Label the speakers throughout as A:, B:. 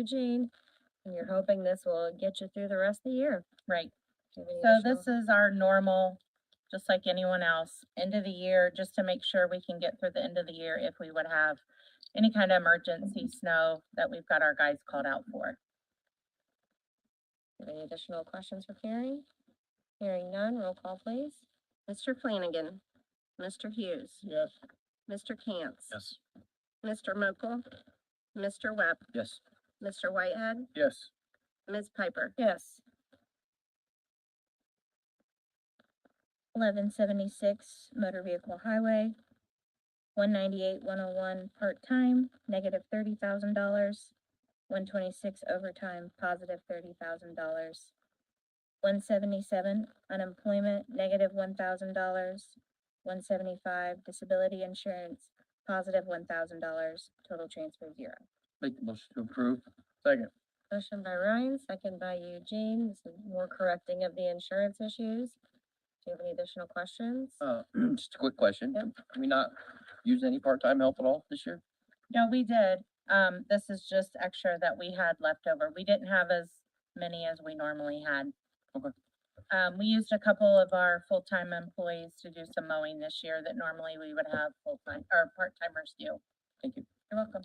A: Eugene, and you're hoping this will get you through the rest of the year.
B: Right,
A: Do you have any
B: so
A: additional-
B: this is our normal, just like anyone else, end of the year, just to make sure we can get through the end of the year if we would have any kind of emergency snow that we've got our guys called out for.
A: Any additional questions for Carrie? Hearing none, roll call please. Mr. Flanagan. Mr. Hughes.
C: Yes.
A: Mr. Cantz.
C: Yes.
A: Mr. Mokel. Mr. Webb.
C: Yes.
A: Mr. Whitehead.
C: Yes.
A: Ms. Piper.
B: Yes. Eleven seventy-six, motor vehicle highway. One ninety-eight, one oh one, part-time, negative thirty thousand dollars. One twenty-six overtime, positive thirty thousand dollars. One seventy-seven, unemployment, negative one thousand dollars. One seventy-five, disability insurance, positive one thousand dollars, total transfer zero.
C: Make the motion to approve. Second.
A: Motion by Ryan, second by Eugene. This is more correcting of the insurance issues. Do you have any additional questions?
C: Uh, just a quick question.
A: Yep.
C: Can we not use any part-time help at all this year?
B: No, we did. Um, this is just extra that we had left over. We didn't have as many as we normally had.
C: Okay.
B: Um, we used a couple of our full-time employees to do some mowing this year that normally we would have full-time or part-timers do.
C: Thank you.
B: You're welcome.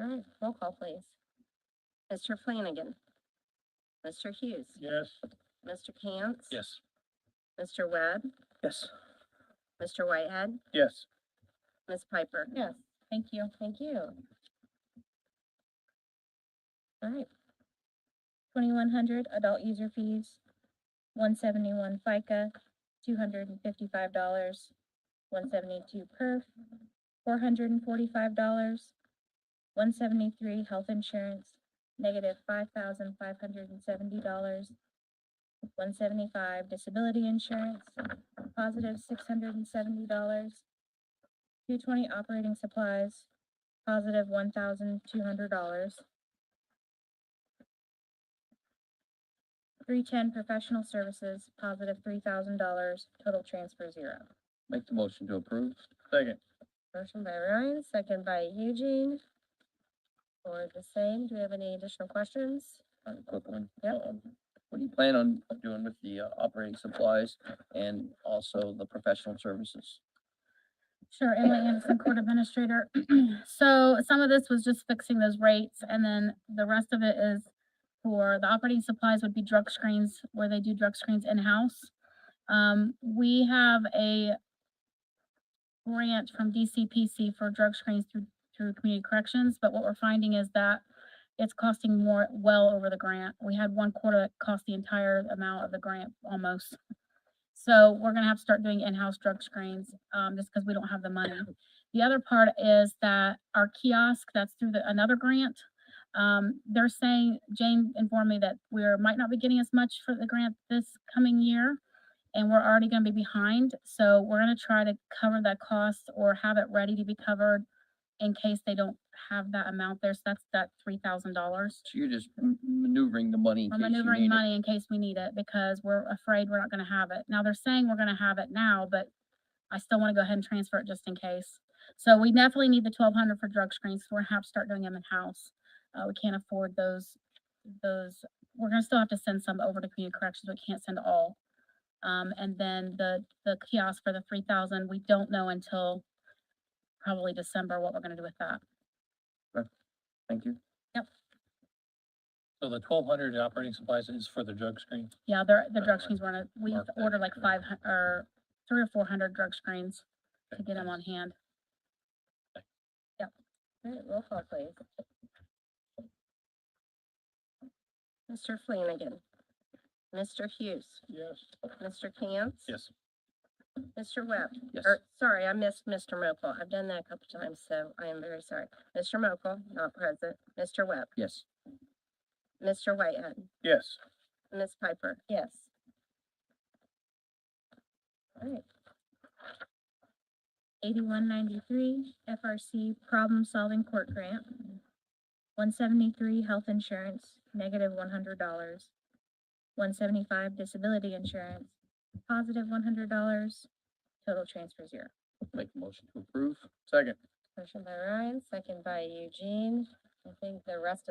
A: All right, roll call please. Mr. Flanagan. Mr. Hughes.
C: Yes.
A: Mr. Cantz.
C: Yes.
A: Mr. Webb.
C: Yes.
A: Mr. Whitehead.
C: Yes.
A: Ms. Piper?
B: Yes. Thank you.
A: Thank you. All right,
B: Twenty-one hundred adult user fees, one seventy-one FICA, two hundred and fifty-five dollars, one seventy-two perf, four hundred and forty-five dollars, one seventy-three health insurance, negative five thousand five hundred and seventy dollars, one seventy-five disability insurance, positive six hundred and seventy dollars, two twenty operating supplies, positive one thousand two hundred dollars, Three ten professional services, positive three thousand dollars, total transfer zero.
C: Make the motion to approve. Second.
A: motion by Ryan, second by Eugene. For the same, do we have any additional questions?
C: I have a quick one.
A: Yep.
C: Um, What do you plan on doing with the uh, operating supplies and also the professional services?
D: Sure, Emily Anderson, Court Administrator. So some of this was just fixing those rates, and then the rest of it is for the operating supplies would be drug screens, where they do drug screens in-house. Um, we have a grant from DCPC for drug screens through, through community corrections, but what we're finding is that it's costing more, well over the grant. We had one quarter that cost the entire amount of the grant almost. So we're gonna have to start doing in-house drug screens, um, just because we don't have the money. The other part is that our kiosk, that's through the, another grant. Um, they're saying, Jane informed me that we're, might not be getting as much for the grant this coming year. And we're already gonna be behind, so we're gonna try to cover that cost or have it ready to be covered in case they don't have that amount there. So that's that three thousand dollars.
C: So you're just m- maneuvering the money in
D: We're
C: case you
D: maneuvering
C: need it.
D: money in case we need it because we're afraid we're not gonna have it. Now, they're saying we're gonna have it now, but I still wanna go ahead and transfer it just in case. So we definitely need the twelve hundred for drug screens. so We're gonna have to start doing them in-house. Uh, we can't afford those, those, we're gonna still have to send some over to community corrections. We can't send all. Um, and then the, the kiosk for the three thousand, we don't know until probably December what we're gonna do with that.
C: Thank you.
E: So the twelve hundred operating supplies is for the drug screen.
D: Yeah, they're, the
E: Better
D: drug
E: mark-
D: screens weren't, a- we
E: mark that
D: ordered like
E: down.
D: five hun- or three or four hundred drug screens to
E: Okay,
D: get them
E: thanks.
D: on hand.
A: All right, roll call please. Mr. Flanagan. Mr. Hughes.
E: Yes.
A: Mr. Cantz.
E: Yes.
A: Mr. Webb.
C: Yes.
A: Or, sorry, I missed Mr. Mokel. I've done that a couple times, so I am very sorry. Mr. Mokel, not present. Mr. Webb.
C: Yes.
A: Mr. Whitehead.
E: Yes.
A: Ms. Piper.
B: Yes.
A: All right,
D: Eighty-one ninety-three FRC Problem Solving Court Grant. One seventy-three Health Insurance, negative one hundred dollars. One seventy-five Disability Insurance, positive one hundred dollars, total transfer zero.
C: Make the motion to approve. Second.
A: motion by Ryan, second by Eugene. I think the rest of